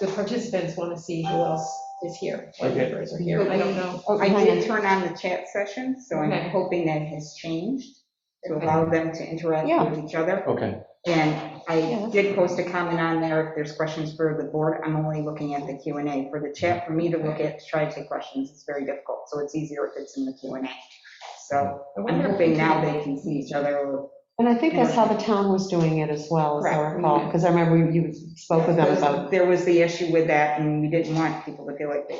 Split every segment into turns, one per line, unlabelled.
the participants want to see who else is here, what
Okay.
members are here, I don't know.
Oh,
I
hang
did
on.
turn on the chat session, so
Okay.
I'm hoping that has changed to
Okay.
allow them to interact
Yeah.
with each other.
Okay,
And
Yeah,
I
that's
did post a comment on there, if there's questions for the board, I'm only looking at the Q and A. For the chat, for me to look at, to try to take questions, it's very difficult, so it's easier if it's in the Q and A. So
I
I'm
wonder if
hoping
we
now
can-
they can see each other or
And I think that's how the town was doing it as well, as I
Correct.
recall, because I remember you spoke with them about,
There was the issue with that, and we didn't want people to feel like they,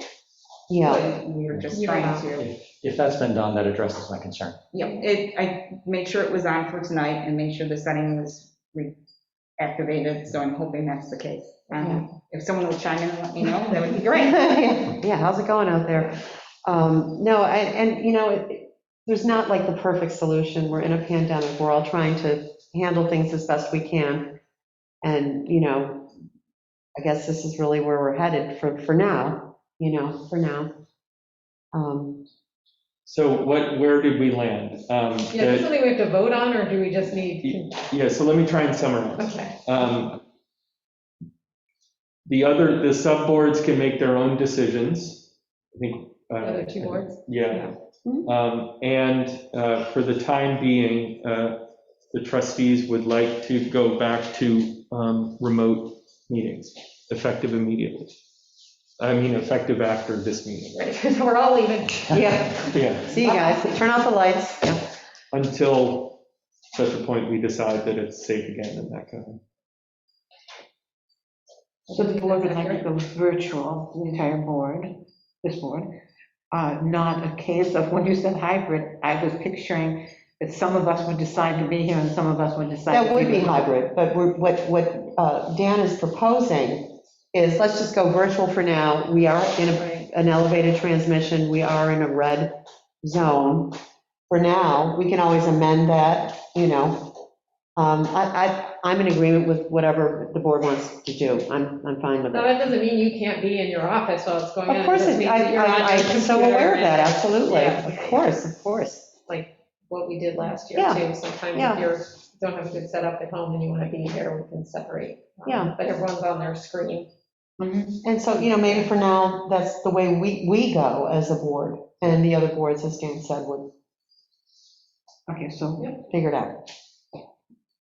yeah.
we were just trying to,
if that's been done, that addresses my concern.
yeah, it, I made sure it was on for tonight and made sure the setting was reactivated, so I'm hoping that's the case. Um, If someone will chime in and let me know, that would be great.
Yeah, how's it going out there? Um, No, I- and, you know, it- there's not like the perfect solution. We're in a pandemic. We're all trying to handle things as best we can. And, you know, I guess this is really where we're headed for, for now, you know, for now. Um,
So what, where did we land?
Yeah,
Um,
is this
the-
something we have to vote on, or do we just need,
Yeah, so let me try and summarize.
okay,
Um, The other, the subboards can make their own decisions, I think. uh,
the other two boards?
Yeah. Um, And uh, for the time being, uh, the trustees would like to go back to um, remote meetings, effective immediately. I mean, effective after this meeting, right?
Because we're all leaving.
Yeah,
Yeah.
see you guys. Turn off the lights. Yeah.
until such a point we decide that it's safe again and that kind of.
So the board would like to go virtual, the entire board, this board, uh, not a case of, when you said hybrid, I was picturing that some of us would decide to be here and some of us would decide.
That
to
would be
here.
hybrid, but we're, what, what uh, Dan is proposing is, let's just go virtual for now. We are in a- an elevated transmission, we are in a red zone. For now, we can always amend that, you know. Um, I, I, I'm in agreement with whatever the board wants to do, I'm, I'm fine with
No,
it.
that doesn't mean you can't be in your office while it's going on.
Of course,
just
it-
means
I,
that you're on your
I- I'm so
computer
aware of that,
and
absolutely,
Yeah.
of course, of course.
What we did last year
Yeah.
too, sometimes
Yeah.
if you're, don't have good setup at home and you want to be here, we can separate. um,
Yeah.
But everyone's on their screen.
Mhm.
And so, you know, maybe for now, that's the way we, we go as a board, and the other boards, as Dan said, would
Okay, so
figure it out.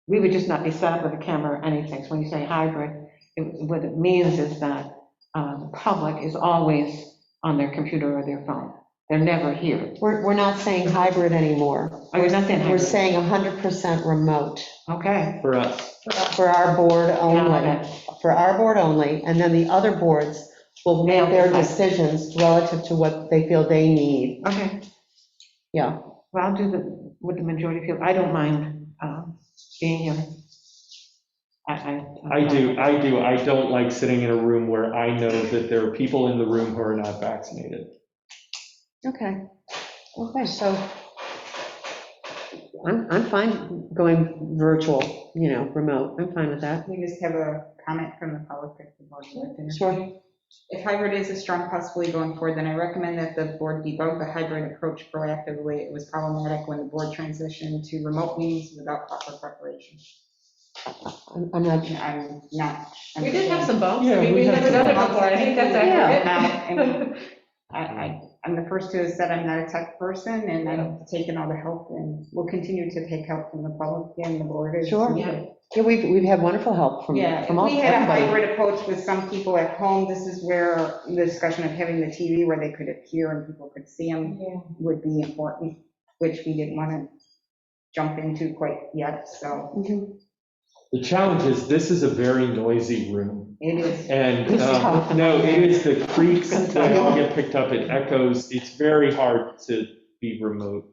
we would just not be set up with a camera or anything. So when you say hybrid, it- what it means is that uh, the public is always on their computer or their phone. They're never here.
We're, we're not saying hybrid anymore.
Oh, you're not saying
We're
hybrid?
saying 100% remote
Okay.
For us,
for our board
Got
only, for our board only, and then the other boards will make their decisions relative to what they feel they need.
Okay.
Yeah.
Well, I'll do the, what the majority feel, I don't mind um, being here. I, I.
I do, I do, I don't like sitting in a room where I know that there are people in the room who are not vaccinated.
Okay. Okay, so I'm, I'm fine going virtual, you know, remote, I'm fine with that.
We just have a comment from the public. if the board would like to.
Sure.
If hybrid is a strong possibility going forward, then I recommend that the board debunk the hybrid approach proactively. It was problematic when the board transitioned to remote meetings without proper preparation.
I'm I'm not,
I'm not.
We did have some bumps,
Yeah,
I mean,
we
we've
had
never done it
some
before, I think that's
bumps. Yeah.
accurate.
I, I, I'm the first to have said I'm not a tech person, and I've taken all the help, and will continue to take help from the public and the board. as
Sure.
needed.
yeah, we've, we've had wonderful help from,
Yeah, if
from all,
we had a
everybody.
hybrid approach with some people at home, this is where the discussion of having the TV where they could appear and people could see them would be important, which we didn't want to jump into quite yet, so
Mhm.
The challenge is, this is a very noisy room.
it is.
And, um, no, it is the creaks that all get picked up, it echoes, it's very hard to be remote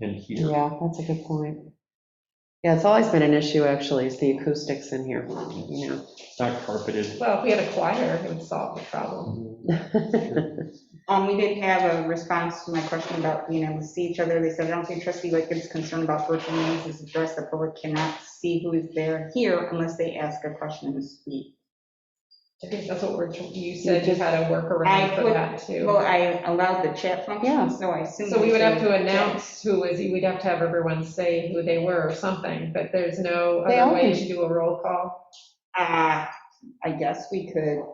and hear.
Yeah, that's a good point. Yeah, it's always been an issue, actually, is the acoustics in here, you know.
It's not carpeted.
Well, if we had a choir, it would solve the problem.
Um, we did have a response to my question about being able to see each other. They said, I don't think trustee Lightgib's concern about virtual meetings is addressed. The public cannot see who is there here unless they ask a question and speak.
I think that's what we're, you said you had a workaround
I
for
would-
that too.
Well, I allowed the chat
Yeah.
function, so I assume.
So we would have to
Yeah.
announce who was, we'd have to have everyone say who they were or something, but there's no
They
other way
always-
to do a roll call.
Uh, I guess we could